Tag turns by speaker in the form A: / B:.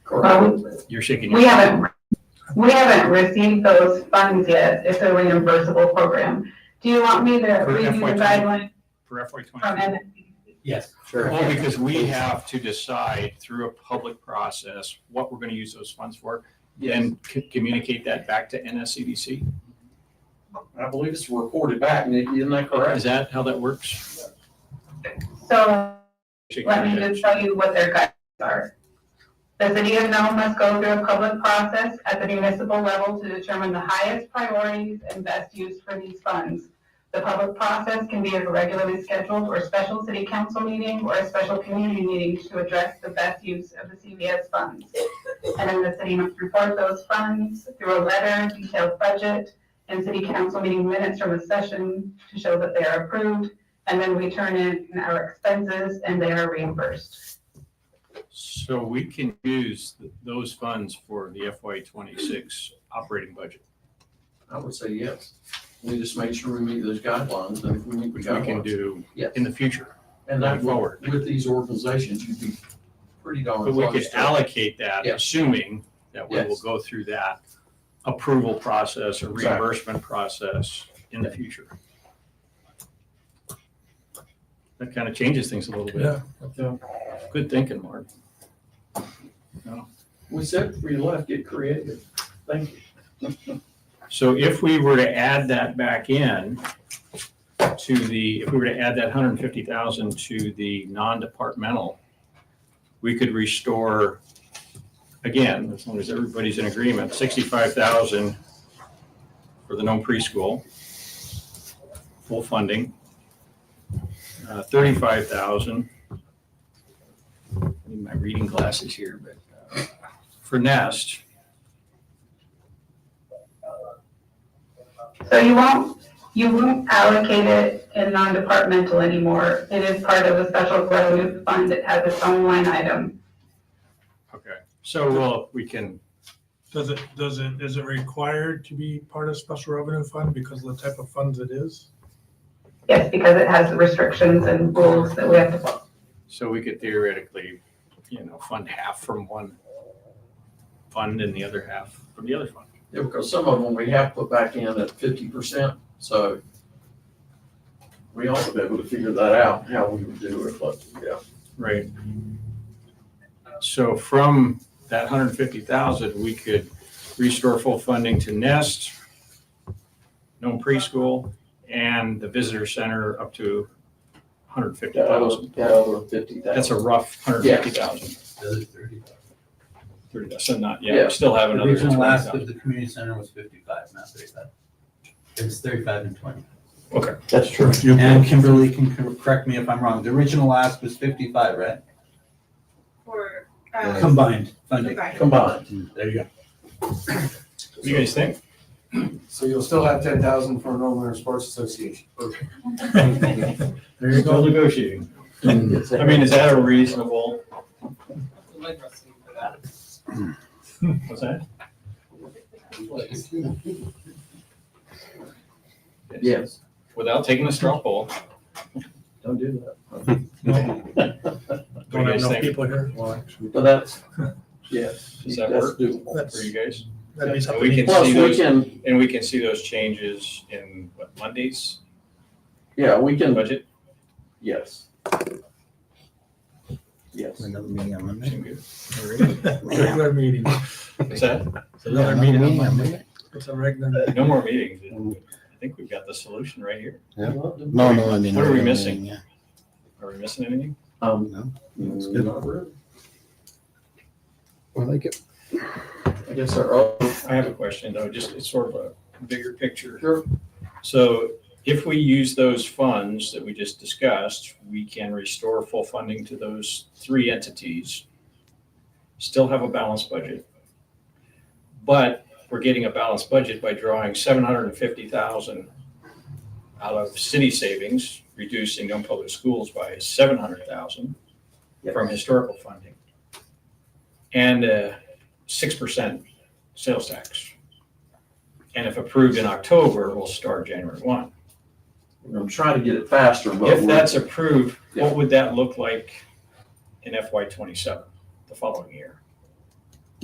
A: Well,
B: You're shaking your
A: We
B: head.
A: haven't, we haven't received those funds yet. It's a reimbursable program. Do you want me to
B: For
A: read you the
B: FY20.
A: guidelines
B: For FY
A: from
B: twenty-two.
A: NSC?
C: Yes.
B: Well, because we have to decide through a public process what we're gonna use those funds for, and c- communicate that back to NSCDC.
D: I believe it's reported back, and isn't that
B: Is
D: correct?
B: that how that works?
A: So
B: Shaking
A: let me
B: your head.
A: just tell you what their guidelines are. The city of Nome must go through a public process at the municipal level to determine the highest priorities and best use for these funds. The public process can be a regularly scheduled or special city council meeting or a special community meeting to address the best use of the CVS funds. And then the city must report those funds through a letter, detailed budget, and city council meeting minutes from the session to show that they are approved and then we turn in our expenses and they are reimbursed.
B: So we can use th- those funds for the FY twenty-six operating budget.
D: I would say yes. We just make sure we meet those guidelines, and if we meet the
B: Which we can
D: guidelines.
B: do
D: Yes.
B: in the future.
D: And that,
B: going
D: will-
B: forward.
D: with these organizations, you'd be pretty darn
B: But
D: close.
B: we could
D: to-
B: allocate that,
D: Yeah.
B: assuming that we will
D: Yes.
B: go through that approval process or
D: Exactly.
B: reimbursement process in the future. That kind of changes things a little bit.
D: Yeah.
B: Good thinking, Mark.
D: We said before you left, get creative. Thank you.
B: So if we were to add that back in to the, if we were to add that hundred and fifty thousand to the non-departmental, we could restore, again, as long as everybody's in agreement, sixty-five thousand for the no preschool, full funding, uh, thirty-five thousand. I Need my reading glasses here, but uh, for Nest,
A: So you won't, you won't allocate it in non-departmental anymore. It is part of a special revenue fund that has its own line item.
B: okay, so we'll, we can
E: Does it, does it, is it required to be part of special revenue fund because of the type of funds it is?
A: Yes, because it has restrictions and rules that we have to follow.
B: So we could theoretically, you know, fund half from one fund and the other half from the other fund.
D: Yeah, because some of them we have put back in at fifty percent, so we ought to be able to figure that out, how we would do it, but, yeah.
B: Right. So from that hundred and fifty thousand, we could restore full funding to Nest, Nome preschool, and the visitor center up to hundred and fifty
D: That
B: thousand.
D: other, that other fifty thousand.
B: That's a rough hundred and fifty thousand. Thirty, so not, yeah,
D: Yeah.
B: we still have
C: The
B: another.
C: original last
B: 20,000.
C: of the community center was fifty-five, not thirty-five. It was thirty-five and twenty.
D: That's true.
C: And Kimberly can cor- correct me if I'm wrong. The original last was fifty-five, right?
F: For, um,
C: Combined funding. Mm,
F: combined.
D: Combined.
C: There you go.
B: What do you guys think?
G: So you'll still have ten thousand for Northern Winter Sports Association.
B: There you go. Negotiating.
H: Mm.
B: I mean, is that a reasonable? What's that?
D: Yes.
B: Without taking a straw poll.
D: Don't do
B: do you
E: Don't have
B: guys
E: no
B: think?
E: people here.
D: that. But that's, yes.
B: Does that
D: that's
B: work?
D: doable.
B: For you
E: That's,
B: guys?
E: that'd be
B: And
E: something.
B: we can
D: Plus,
B: see
D: we
B: those,
D: can,
B: and we can see those changes in, what, Mondays
D: yeah, we can,
B: budget?
D: yes. Yes.
C: Another meeting on Monday.
B: Seem good? Alright.
E: Regular meeting.
B: What's that?
C: It's another meeting on Monday.
E: It's a regular.
B: No more meetings. I think we've got the solution right here.
H: No, no, I mean.
B: What are we
H: I mean,
B: missing?
H: yeah.
B: Are we missing anything?
D: Um,
H: No, it's good.
D: not really.
H: I like it.
D: I guess our, oh,
B: I have a question though, just it's sort of a bigger picture.
D: Sure.
B: So if we use those funds that we just discussed, we can restore full funding to those three entities. Still have a balanced budget. But we're getting a balanced budget by drawing seven hundred and fifty thousand out of city savings, reducing non-public schools by seven hundred thousand from historical funding. And a six percent sales tax. And if approved in October, we'll start January one.
D: I'm trying to get it faster, but.
B: If
D: we're-
B: that's approved,
D: Yeah.
B: what would that look like in FY twenty-seven, the following year?